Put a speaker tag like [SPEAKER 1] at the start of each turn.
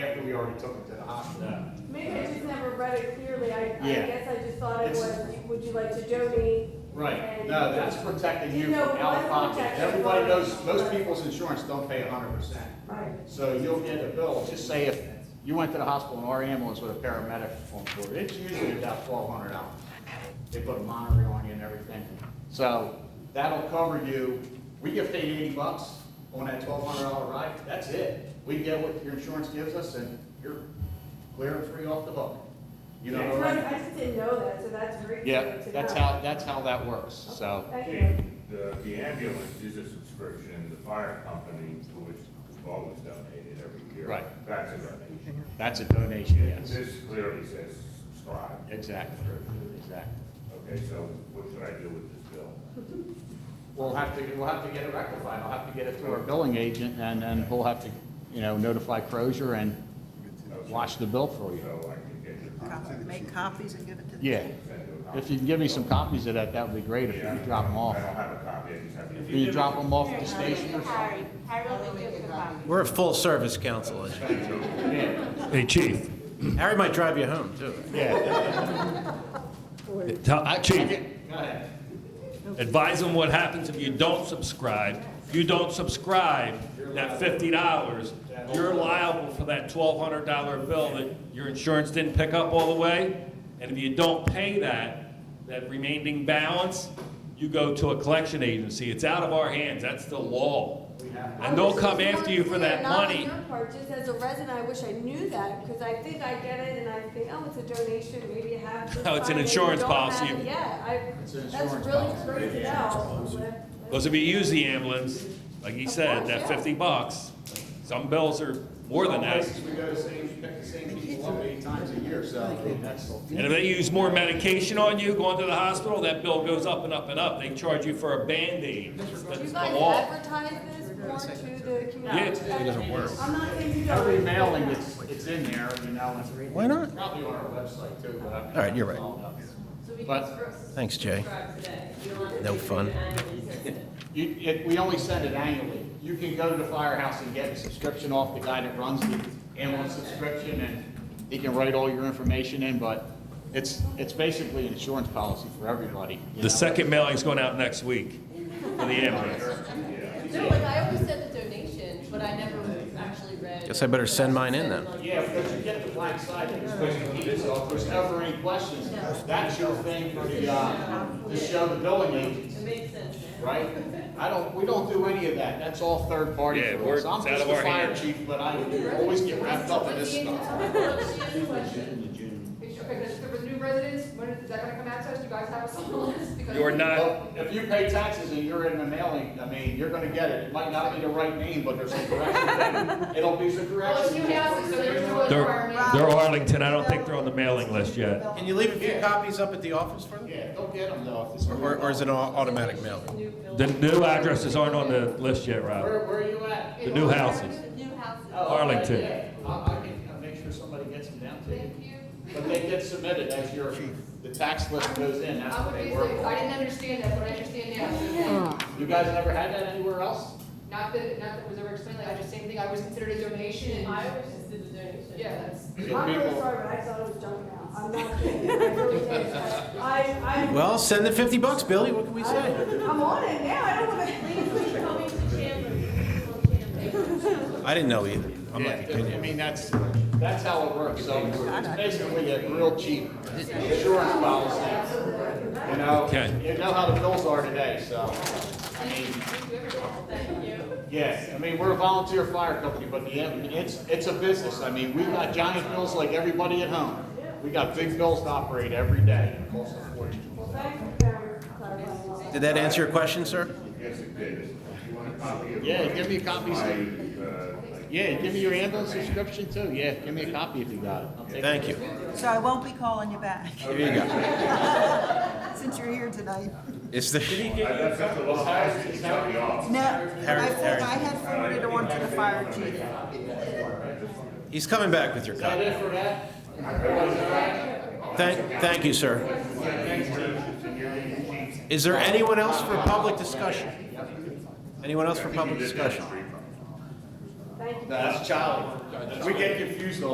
[SPEAKER 1] already took it to the hospital.
[SPEAKER 2] No.
[SPEAKER 3] Maybe I just never read it clearly, I, I
[SPEAKER 1] Yeah.
[SPEAKER 3] guess I just thought it
[SPEAKER 1] It's-
[SPEAKER 3] was, would you like to donate?
[SPEAKER 1] Right,
[SPEAKER 3] And-
[SPEAKER 1] no, that's protecting you
[SPEAKER 3] You know,
[SPEAKER 1] from out of
[SPEAKER 3] one
[SPEAKER 1] pocket.
[SPEAKER 3] protection
[SPEAKER 1] Everybody
[SPEAKER 3] one-
[SPEAKER 1] knows, most people's insurance don't pay hundred percent.
[SPEAKER 3] Right.
[SPEAKER 1] So you'll get a bill, just say if you went to the hospital and our ambulance with a paramedic on board, it's usually about twelve hundred dollars. They put a monitor on you and everything. So that'll cover you, we get paid eighty bucks on that twelve hundred dollar ride, that's it. We get what your insurance gives us and you're clear and free off the hook. You know
[SPEAKER 3] I
[SPEAKER 1] what I mean?
[SPEAKER 3] just didn't know that, so that's great.
[SPEAKER 1] Yeah,
[SPEAKER 3] to
[SPEAKER 1] that's
[SPEAKER 3] know.
[SPEAKER 1] how, that's how that works, so.
[SPEAKER 3] Thank you.
[SPEAKER 4] The, the ambulance is a subscription, the fire company, which is always donated every year.
[SPEAKER 1] Right.
[SPEAKER 4] That's a donation.
[SPEAKER 1] That's a donation, yes.
[SPEAKER 4] This clearly says subscribe.
[SPEAKER 1] Exactly, exactly.
[SPEAKER 4] Okay, so what should I do with this bill?
[SPEAKER 1] We'll have to, we'll have to get it rectified. I'll have to get it to our billing agent and then we'll have to, you know, notify Crozier and
[SPEAKER 4] Okay,
[SPEAKER 1] watch the bill for you.
[SPEAKER 4] So I can get your
[SPEAKER 5] Copy-
[SPEAKER 4] contact.
[SPEAKER 5] Make copies and give it to the.
[SPEAKER 1] Yeah.
[SPEAKER 4] send you a copy.
[SPEAKER 1] If you can give me some copies of that, that would be great if you could drop them off.
[SPEAKER 4] I don't have a copy, I just have.
[SPEAKER 1] Can you drop them off at the station or something?
[SPEAKER 6] Harry, Harry will give you a copy.
[SPEAKER 7] We're a full-service council.
[SPEAKER 1] Yeah,
[SPEAKER 8] Hey, Chief.
[SPEAKER 7] Harry might drive you home, too.
[SPEAKER 1] yeah.
[SPEAKER 8] Tell- Chief,
[SPEAKER 1] Go ahead.
[SPEAKER 8] advise them what happens if you don't subscribe. If you don't subscribe, that fifty dollars, you're liable for that twelve hundred dollar bill that your insurance didn't pick up all the way. And if you don't pay that, that remaining balance, you go to a collection agency. It's out of our hands. That's the law. And
[SPEAKER 3] I
[SPEAKER 8] they'll
[SPEAKER 3] wish it
[SPEAKER 8] come
[SPEAKER 3] was
[SPEAKER 8] after
[SPEAKER 3] more
[SPEAKER 8] you for that
[SPEAKER 3] clear, not on
[SPEAKER 8] money.
[SPEAKER 3] your part, Just as a resident, I wish I knew that, because I think I get it, and I think, oh, it's a donation, maybe you have. to
[SPEAKER 8] No, Oh, it's an
[SPEAKER 3] sign it, you
[SPEAKER 8] insurance
[SPEAKER 3] don't
[SPEAKER 8] policy.
[SPEAKER 3] have it yet. I,
[SPEAKER 1] It's an
[SPEAKER 3] that's
[SPEAKER 1] insurance
[SPEAKER 3] really
[SPEAKER 1] policy.
[SPEAKER 3] great to know.
[SPEAKER 8] Because if you use the ambulance, like he
[SPEAKER 3] Of
[SPEAKER 8] said,
[SPEAKER 3] course,
[SPEAKER 8] that
[SPEAKER 3] yeah.
[SPEAKER 8] fifty bucks, some bills are more than that.
[SPEAKER 1] Places We go to the same, pick the same people up eight times a year, so I mean, that's.
[SPEAKER 8] And if they use more medication on you going to the hospital, that bill goes up and up and up. They charge you for a Band-Aid.
[SPEAKER 3] Do you
[SPEAKER 8] That's the
[SPEAKER 3] guys
[SPEAKER 8] law.
[SPEAKER 3] advertise this more to the community?
[SPEAKER 8] Yeah, it doesn't work.
[SPEAKER 3] I'm not saying you don't.
[SPEAKER 1] Every mailing, it's, it's in there, you know, and
[SPEAKER 7] Why not?
[SPEAKER 1] probably on our website too. but I-
[SPEAKER 7] All right, you're right.
[SPEAKER 1] But
[SPEAKER 7] Thanks, Jay. No fun.
[SPEAKER 1] You, it, we only send it annually. You can go to the firehouse and get a subscription off the guy that runs the ambulance subscription, and he can write all your information in, but it's, it's basically an insurance policy for everybody. you know?
[SPEAKER 8] The second mailing's going out next week for the ambulance.
[SPEAKER 9] No, like I always said the donation, but I never actually read.
[SPEAKER 7] Guess I better send mine in then.
[SPEAKER 1] Yeah, because you get the black side, that you're supposed to keep, so if there's ever any questions, that's your thing for the, uh, to show the billing agents,
[SPEAKER 9] It makes sense now.
[SPEAKER 1] right? I don't, we don't do any of that. That's all third party
[SPEAKER 8] Yeah,
[SPEAKER 1] for
[SPEAKER 8] we're-
[SPEAKER 1] us. I'm
[SPEAKER 8] it's out
[SPEAKER 1] just
[SPEAKER 8] of
[SPEAKER 1] the
[SPEAKER 8] our
[SPEAKER 1] fire
[SPEAKER 8] hands.
[SPEAKER 1] chief, but I always get wrapped up in this stuff.
[SPEAKER 6] Because if there was new residents, when, is that gonna come out to us? Do you guys have us on the list? Because-
[SPEAKER 8] You're not,
[SPEAKER 1] Well, If you pay taxes and you're in the mailing, I mean, you're gonna get it. It might not be the right name, but there's a correction. It'll be the
[SPEAKER 6] Well, it's
[SPEAKER 1] correction.
[SPEAKER 6] new houses, so there's no
[SPEAKER 8] They're-
[SPEAKER 6] requirement.
[SPEAKER 8] they're Arlington. I don't think they're on the mailing list yet.
[SPEAKER 7] Can you leave a few copies up at the office for them?
[SPEAKER 1] Yeah, don't get them though. if it's-
[SPEAKER 7] Or, or is it an au- automatic mail?
[SPEAKER 8] The new addresses aren't on the list yet, Rob.
[SPEAKER 1] Where, where are you at?
[SPEAKER 8] The new houses.
[SPEAKER 9] New houses.
[SPEAKER 1] Oh, okay,
[SPEAKER 8] Arlington.
[SPEAKER 1] yeah. I, I can uh, make sure somebody gets them down to you.
[SPEAKER 6] Thank you.
[SPEAKER 1] But they get submitted as your, the tax list goes in, that's
[SPEAKER 6] I
[SPEAKER 1] what
[SPEAKER 6] would
[SPEAKER 1] they
[SPEAKER 6] be
[SPEAKER 1] work
[SPEAKER 6] I
[SPEAKER 1] on.
[SPEAKER 6] didn't understand that, but I understand now.
[SPEAKER 1] You guys never had that anywhere else?
[SPEAKER 6] Not that, not that it was ever explained, like, I just, same thing, I was considered a donation
[SPEAKER 9] I
[SPEAKER 6] and,
[SPEAKER 9] always just did the donation.
[SPEAKER 6] yeah, that's.
[SPEAKER 1] So
[SPEAKER 3] I'm really
[SPEAKER 1] people-
[SPEAKER 3] sorry, but I thought it was junk mail. I'm not kidding. I really did. I, I.
[SPEAKER 7] Well, send the fifty bucks, Billy. What can we say?
[SPEAKER 3] I'm on it now. I don't have a.
[SPEAKER 9] Please, please, call me to Chandler. Please, call Chandler.
[SPEAKER 7] I didn't know either. I'm
[SPEAKER 1] Yeah,
[SPEAKER 7] like,
[SPEAKER 1] I mean, that's, that's how it works, so it's basically a real cheap insurance policy. You know,
[SPEAKER 8] Okay.
[SPEAKER 1] you know how the bills are today, so, I mean,
[SPEAKER 9] Thank you.
[SPEAKER 1] yeah, I mean, we're a volunteer fire company, but the, I mean, it's, it's a business, I mean, we got giant bills like everybody at home. We got big bills to operate every day, it costs a fortune.
[SPEAKER 3] Well, thank you for clarifying all that.
[SPEAKER 7] did that answer your question, sir?
[SPEAKER 4] Yes, it did. Do you want a copy of
[SPEAKER 1] Yeah,
[SPEAKER 4] my-
[SPEAKER 1] give me copies.
[SPEAKER 4] My, uh, like,
[SPEAKER 1] Yeah, give me your ambulance subscription too, yeah, give me a copy if you got it. I'll take it.
[SPEAKER 7] Thank you.
[SPEAKER 5] So I won't be calling you back,
[SPEAKER 7] Here you go.
[SPEAKER 5] since you're here tonight.
[SPEAKER 7] Is there,
[SPEAKER 4] I left such a lot, I was just telling you off.
[SPEAKER 5] No, I
[SPEAKER 7] Harry-
[SPEAKER 5] for- I had forwarded on to the fire chief.
[SPEAKER 7] he's coming back with your
[SPEAKER 1] Is that
[SPEAKER 7] copy.
[SPEAKER 1] it for that?
[SPEAKER 7] Thank, thank you, sir. Is there anyone else for public discussion? Anyone else for public discussion?
[SPEAKER 1] That's Charlie. We get confused all